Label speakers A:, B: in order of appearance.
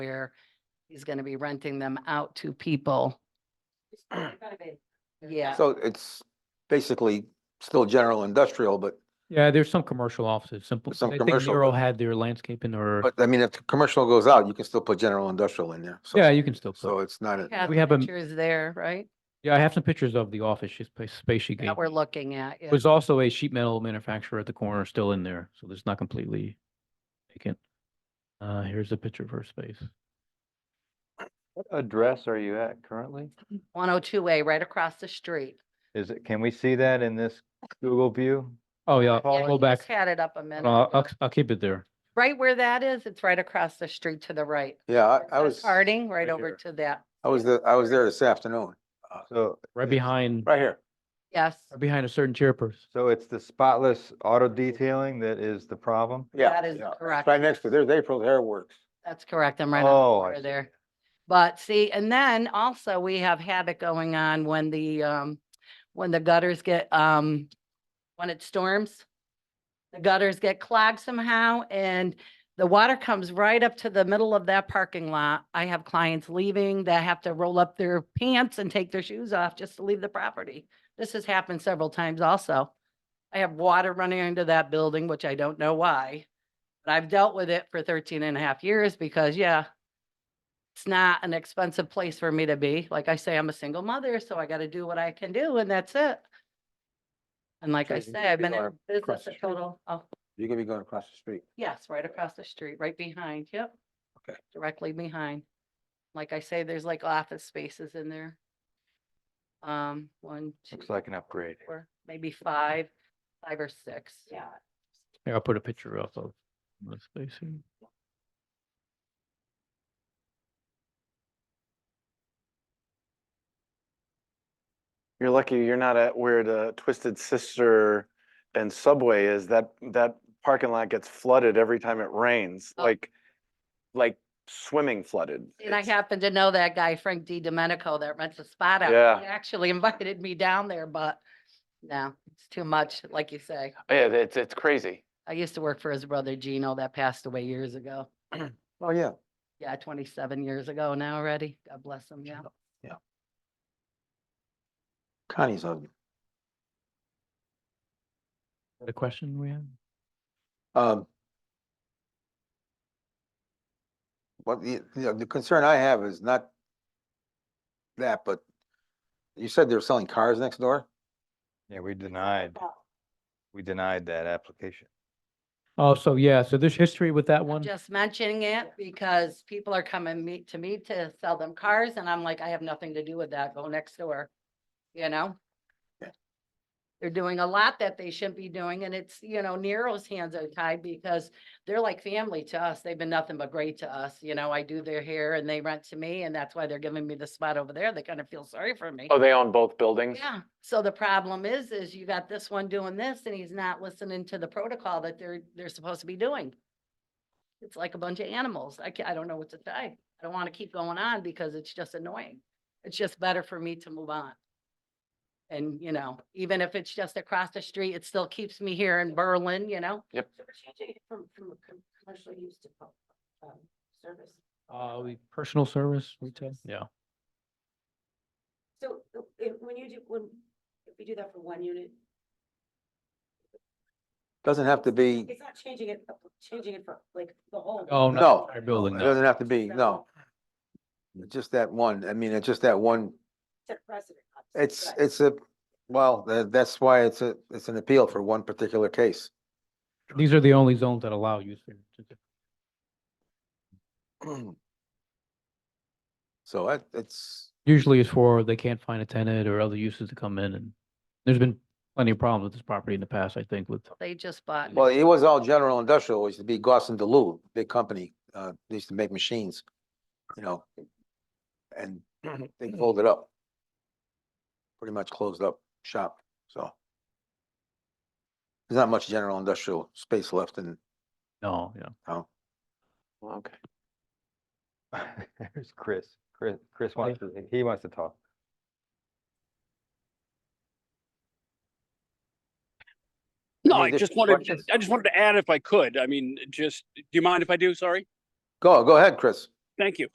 A: where he's going to be renting them out to people. Yeah.
B: So it's basically still general industrial, but,
C: Yeah, there's some commercial offices, simple.
B: Some
C: I think
B: commercial,
C: Nero
B: but-
C: had their landscaping or,
B: but I mean, if the commercial goes out, you can still put general industrial in there. So-
C: yeah, you can still. put-
B: So it's not, a
C: We have a-
A: Pictures there, right?
C: Yeah, I have some pictures of the office she- spa- space she gave.
A: That we're looking at, yeah.
C: There's also a sheet metal manufacturer at the corner still in there, so it's not completely vacant. Uh, here's a picture of her space.
D: What address are you at currently?
A: One oh two A, right across the street.
D: Is it, can we see that in this Google view?
C: Oh, yeah,
A: Yeah,
C: I'll
A: you
C: go back. Uh,
A: just Had it up a minute.
C: I'll,
A: ago.
C: I'll, I'll keep it there.
A: Right where that is, it's right across the street to the right.
B: yeah, I- I
A: By
B: was, I
A: Harding, right
B: right
A: over
B: here.
A: to that.
B: was, the- I was there this afternoon,
D: So,
C: Right behind,
B: right here.
A: Yes.
C: right behind a certain chairperson.
D: so it's the spotless auto detailing that is the problem?
B: Yeah.
A: That is
B: yeah. It's
A: correct.
B: Right next to, there's April Hair Works.
A: That's correct. I'm right on
D: Oh,
A: the
D: I
A: border
D: see.
A: there. But see, and then also we have havoc going on when the, um, when the gutters get, um, when it storms. The gutters get clogged somehow and the water comes right up to the middle of that parking lot. I have clients leaving that have to roll up their pants and take their shoes off just to leave the property. This has happened several times also. I have water running into that building, which I don't know why. But I've dealt with it for 13 and a half years because, yeah, it's not an expensive place for me to be. Like I say, I'm a single mother, so I got to do what I can do and that's it. And like I
B: Okay, you
A: say, I've
B: can
A: been in
B: go across
A: business
B: the
A: a
B: street.
A: total, oh,
B: You could be going across the street.
A: yes, right across the street, right behind, yep.
B: Okay.
A: Directly behind. Like I say, there's like office spaces in there. Um, one, two,
D: Looks like an upgrade.
A: four, maybe five, five or six. Yeah.
C: Here, I'll put a picture up of the space here.
E: You're lucky you're not at where the Twisted Sister and Subway is. That, that parking lot gets flooded every time it rains,
A: Oh.
E: like, like swimming flooded.
A: And I
E: It's-
A: happen to know that guy, Frank D. Domenico, that rents a spot out. He
E: Yeah.
A: Actually invited me down there, but no, it's too much, like you say.
E: Yeah, it's, it's crazy.
A: I used to work for his brother Gino that passed away years ago.
B: Oh, yeah.
A: Yeah, twenty-seven years ago now already. God bless him, yeah.
B: Connie's husband.
C: The question we had?
B: Um. But the, you know, the concern I have is not that, but you said they were selling cars next door?
D: Yeah, we denied, we denied that application.
C: Oh, so yeah, so there's history with that one.
A: Just mentioning it because people are coming meet to me to sell them cars and I'm like, I have nothing to do with that. Go next door. You know?
B: Yeah.
A: They're doing a lot that they shouldn't be doing and it's, you know, Nero's hands are tied because they're like family to us. They've been nothing but great to us. You know, I do their hair and they rent to me and that's why they're giving me the spot over there. They kind of feel sorry for me.
E: Oh, they own both buildings?
A: Yeah, so the problem is, is you got this one doing this and he's not listening to the protocol that they're, they're supposed to be doing. It's like a bunch of animals. I ca- I don't know what to say. I don't want to keep going on because it's just annoying. It's just better for me to move on. And, you know, even if it's just across the street, it still keeps me here in Berlin, you know?
E: Yep.
A: So we're changing it from, from commercial use to, um, service.
C: Uh, we- personal service retail, yeah.
F: So uh, if, when you do, when, if we do that for one unit,
B: Doesn't have to be, it
F: it's not changing it, uh, changing it for like the whole.
C: Oh, no.
B: No.
C: entire Building, no.
B: doesn't have to be, no. Just that one, I mean, it's just that one,
F: Set precedent. obviously,
B: it's,
F: but
B: it's a, well, tha- that's why it's a, it's an appeal for one particular case.
C: These are the only zones that allow use. variance.
B: So it, it's,
C: Usually it's for they can't find a tenant or other uses to come in and there's been plenty of problems with this property in the past, I think, with,
A: They just bought.
B: well, it was all general industrial, it used to be Gaussen Delu, big company, uh, they used to make machines, you know. And they folded up. Pretty much closed up shop, so. There's not much general industrial space left in
C: no, yeah.
E: Okay.
D: There's Chris. Chris, Chris wants, to he wants to talk.
G: No,
B: Any
G: I just
B: additional
G: wanted,
B: questions?
G: I just wanted to add if I could, I mean, just, do you mind if I do? Sorry.
B: Go, go ahead, Chris.
G: Thank you.